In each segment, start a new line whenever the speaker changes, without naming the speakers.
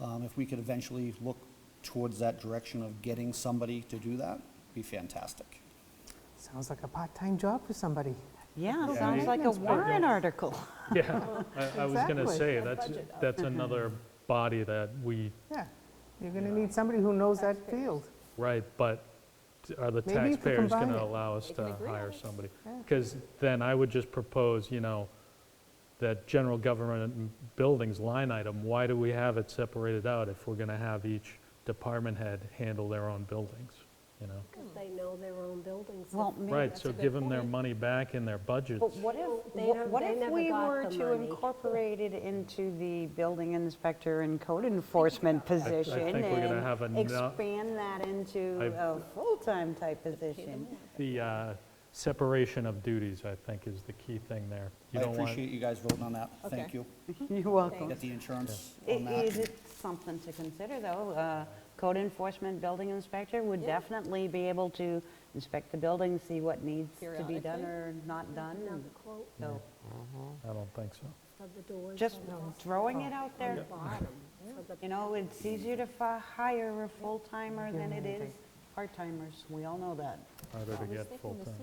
Um, If we could eventually look towards that direction of getting somebody to do that, be fantastic.
Sounds like a part-time job for somebody.
Yeah,
Yeah,
sounds
it-
like a
Maintenance program.
warrant article.
Yeah, I I was going to
Exactly.
say, that's, that's another body that we,
Yeah, you're going to need somebody who knows that field.
right, but are the
Maybe you could
taxpayers going
combine
to
it.
allow us
They can
to
agree on
hire
it.
somebody?
Yeah.
Because then I would just propose, you know, that general government buildings line item, why do we have it separated out if we're going to have each department head handle their own buildings, you know?
Because they know their own buildings.
Hmm. Well, maybe
Right,
that's
so
a good
give them their
point.
money back in their budgets.
But what if,
They
wha-
don't-
what
they
if
never
we
got
were
the
to
money.
incorporate it into the building inspector and code enforcement position?
think we're gonna
and
have a no-
Expand that into
I've-
a full-time type position.
The uh, separation of duties, I think, is the key thing there. You
I
don't want-
appreciate you guys voting on that. Thank
Okay.
you.
You're welcome.
Get the insurance on
It- It is
that.
something to consider, though. Uh, Code enforcement building inspector would
Yeah.
definitely be able to inspect the building, see what needs to be done
Periodically.
or not done.
Another
and
quote
So
I don't think so.
of the doors.
just
on the bottom,
throwing it out there,
of the-
you know, it's easier to fi- hire a full-timer than it is part-timers. We all know that.
Harder to get full-time.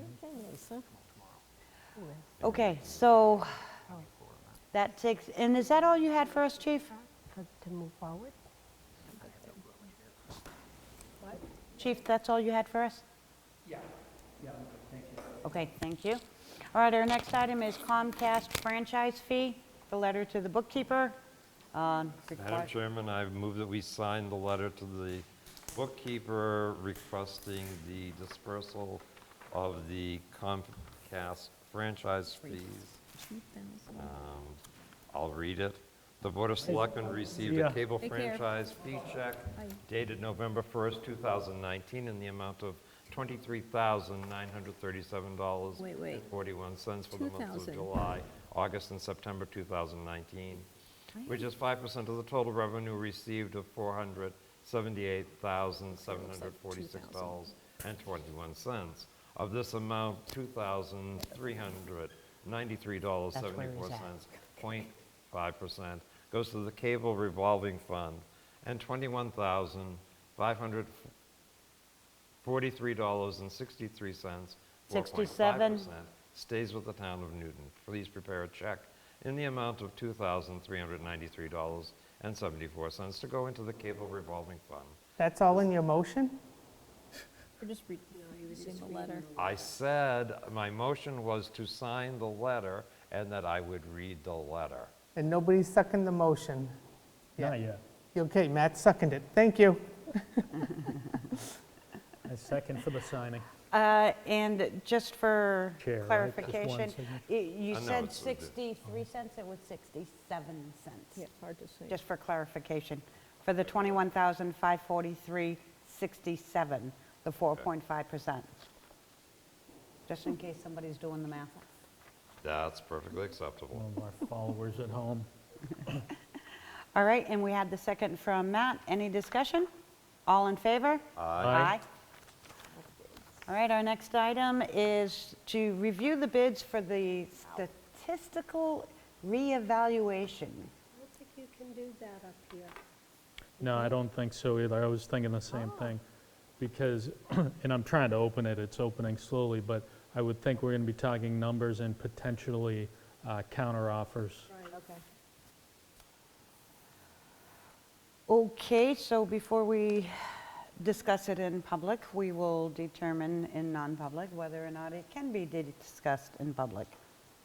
Okay, so that takes, and is that all you had for us, chief?
For- To move forward. What?
Chief, that's all you had for us? Yeah, yeah, thank you. Okay, thank you. All right, our next item is Comcast franchise fee, the letter to the bookkeeper. um,
Madam
require-
Chairman, I move that we sign the letter to the bookkeeper requesting the dispersal of the Comcast franchise fees. Um, I'll read it. The Board of Selectmen received
Yeah.
a cable
Take care.
franchise fee check dated November 1st, 2019, in the amount of $23,937.41
Wait, wait.
for the months
2,000.
of July, August, and September 2019, which is 5% of the total revenue received of $478,746.21. Of this amount, $2,393.74 0.5% goes to the cable revolving fund, and $21,543.63,
67.
4.5%, stays with the town of Newton. Please prepare a check in the amount of $2,393.74 to go into the cable revolving fund.
That's all in your motion?
We're just reading, the letter.
I said, my motion was to sign the letter and that I would read the letter.
And nobody's seconded the motion?
Not yet.
Okay, Matt seconded it. Thank you.
A second for the signing.
Uh, And just for
Chair, right? Just one
clarification,
signature.
y- you
Uh, no,
said
it's- it's-
63 cents, it was 67 cents.
it's hard to see.
Just for clarification, for the 21,543.67, the 4.5%. Just in case somebody's doing the math.
That's perfectly acceptable.
One of our followers at home.
All right, and we had the second from Matt. Any discussion? All in favor?
Aye.
All right, our next item is to review the bids for the statistical reevaluation.
I don't think you can do that up here.
No, I don't think so either. I was thinking the same
Oh.
thing. Because, and I'm trying to open it, it's opening slowly, but I would think we're going to be talking numbers and potentially uh, counteroffers.
Okay.
Okay, so before we discuss it in public, we will determine in non-public whether or not it can be di- discussed in public,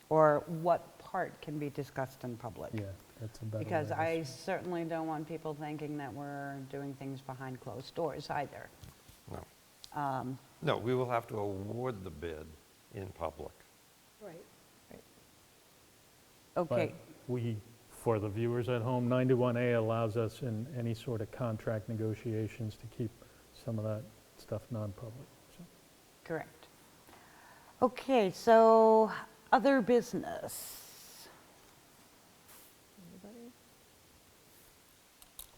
or what part can be discussed in public.
Yeah, that's a better way.
Because
to
I
s-
certainly don't want people thinking that we're doing things behind closed doors either.
No. No, we will have to award the bid in public.
Right.
Okay,
But we, for the viewers at home, 91A allows us in any sort of contract negotiations to keep some of that stuff non-public. so.
correct. Okay, so other business.
Anybody?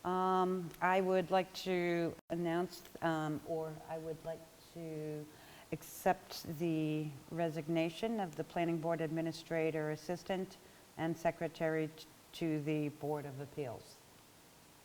Um, I would like to announce, um, or I would like to accept the resignation of the Planning Board Administrator Assistant and Secretary t- to the Board of Appeals.